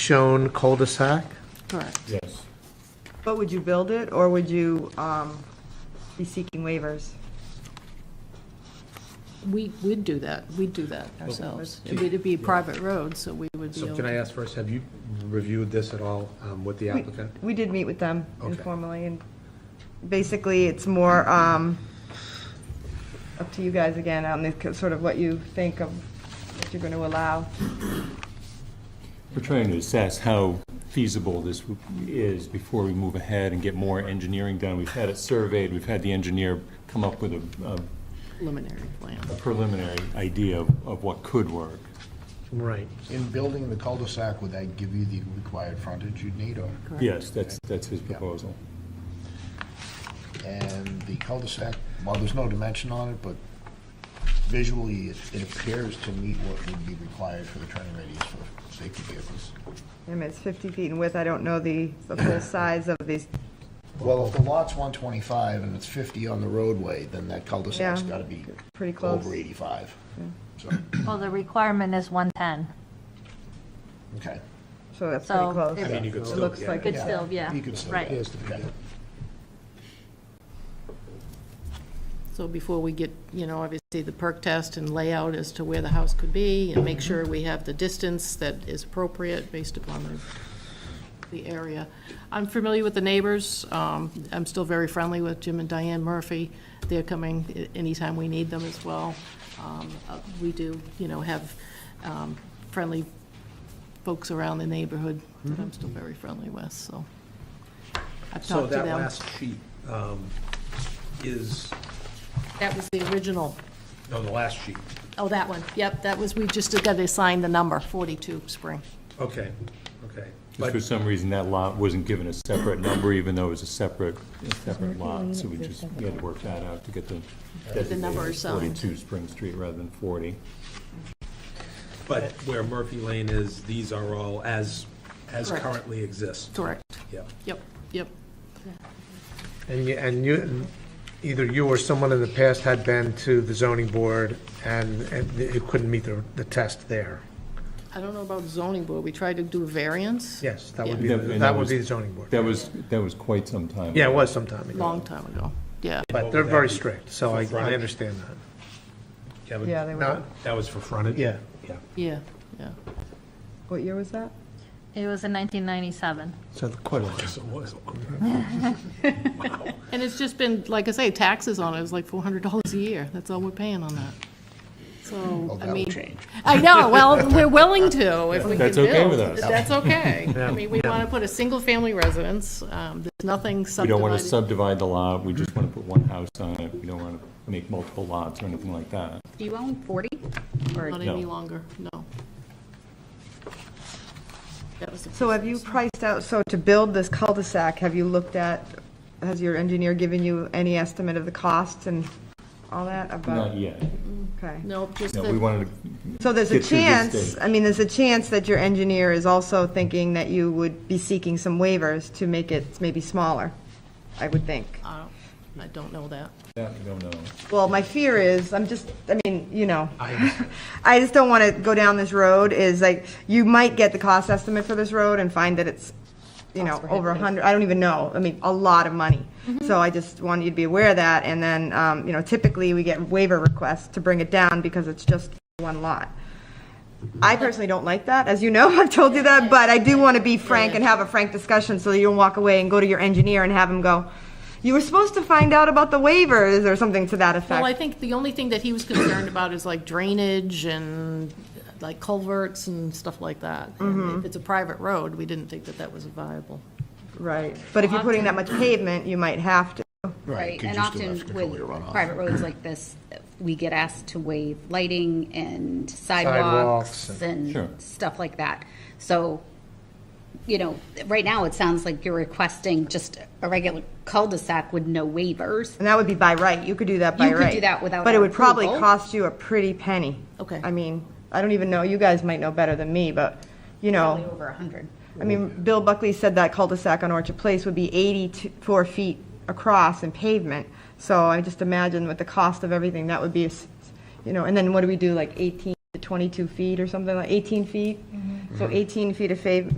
shown cul-de-sac? Correct. Yes. But would you build it, or would you um, be seeking waivers? We, we'd do that, we'd do that ourselves. do you- It'd be a private road, so we would be So able can I to. ask first, have you reviewed this at all um, with the We- applicant? We did meet with them Okay. informally, and basically, it's more um, up to you guys again, on the, sort of what you think of, what you're going to allow. We're trying to assess how feasible this is before we move ahead and get more engineering done. We've had it surveyed, we've had the engineer come up with a- a Preliminary plan. a preliminary idea of of what could work. Right. In building the cul-de-sac, would that give you the required frontage you'd need, or, Correct. Yes, that's, that's his proposal. and the cul-de-sac, well, there's no dimension on it, but visually, it it appears to meet what would be required for the turning radius for safety vehicles. I mean, it's 50 feet in width, I don't know the, the full size of these, Well, if the lot's 125 and it's 50 on the roadway, then that cul-de-sac's Yeah. got to be pretty close. over 85. So, Well, the requirement is 110. okay. So that's So pretty close. if- I mean, you could It still- looks yeah, like Could it's- still, yeah. You could still, Right. okay. So before we get, you know, obviously the perk test and layout as to where the house could be, and make sure we have the distance that is appropriate based upon the, the area. I'm familiar with the neighbors, um, I'm still very friendly with Jim and Diane Murphy. They're coming a- anytime we need them as well. Um, uh, We do, you know, have, um, friendly folks around the neighborhood that I'm still very friendly with, so. I've Mm-hmm. So talked to that them. last sheet um, is, That was the original no, the last sheet, Oh, that one, yep, that was, we just got to assign the number, 42 Spring. okay, okay. Just But for some reason, that lot wasn't given a separate number, even though it was a separate, a separate lot. So we just, we had to work that out to get the. The number designated assigned. 42 Spring Street rather than 40. But where Murphy Lane is, these are all as, as Correct. currently exists. Correct. Yeah. Yep, yep. And you, and you, either you or someone in the past had been to the zoning board and, and it couldn't meet the, the test there. I don't know about zoning board, we tried to do variance. Yes, that would be, Yeah. the- And that that would be the was- zoning board. That was, that was quite some time. Yeah, it was some time ago, Long time ago, yeah. but they're very strict, so I, I understand that. Kevin? Yeah, they were, Not, That was for frontage? yeah. Yeah. Yeah, yeah. what year was that? It was in 1997. So quite a lot. Yes, it was. And it's just been, like I say, taxes on it is like $400 a year, that's all we're paying on that. So, I Oh, that'll mean. change. I know, well, we're willing to if we can build. That's okay with us. That's okay. I mean, we want to put a single-family residence, um, there's nothing We subdivided. don't want to subdivide the lot, we just want to put one house on it, we don't want to make multiple lots or anything like that. Do you own 40? Not any No. longer, no. That was the So have you priced out, so to build this cul-de-sac, have you looked at, has your engineer given you any estimate of the costs and all that Not about? yet. Okay. No, just No, we the, wanted to, So there's a Get through this chance, stage. I mean, there's a chance that your engineer is also thinking that you would be seeking some waivers to make it maybe smaller, I would think. I don't- I don't know that. that, we don't know. Well, my fear is, I'm just, I mean, you know, I just don't want to go down this road, is like, you might get the cost estimate for this road and find that it's, you know, over a hundred, I don't even know, I mean, a lot of money. So I just want you to be aware of that, and then, um, you know, typically, we get waiver requests to bring it down because it's just one lot. I personally don't like that, as you know, I've told you that, but I do want to be frank and have a frank discussion so that you don't walk away and go to your engineer and have him go, you were supposed to find out about the waivers or something to that effect. Well, I think the only thing that he was concerned about is like drainage and like culverts and stuff like that. Mm-hmm. And If it's a private road, we didn't think that that was viable. Right, but if you're putting that much pavement, you might have to. Right, 'cause and you still often have to control your with runoff. private roads like this, we get asked to waive lighting and Sidewalks sidewalks Sure. and stuff like that. So, you know, right now, it sounds like you're requesting just a regular cul-de-sac with no waivers. And that would be by right, you could do that by right. You could do that without But it would probably approval. cost you a pretty penny. Okay. I mean, I don't even know, you guys might know better than me, but, you Probably know, over 100. I mean, Bill Buckley said that cul-de-sac on Orchard Place would be 84 feet across in pavement. So I just imagine with the cost of everything, that would be, a s- you know, and then Mm-hmm. what do we do, like 18 to 22 feet or something, like 18 feet? So 18 feet of fav-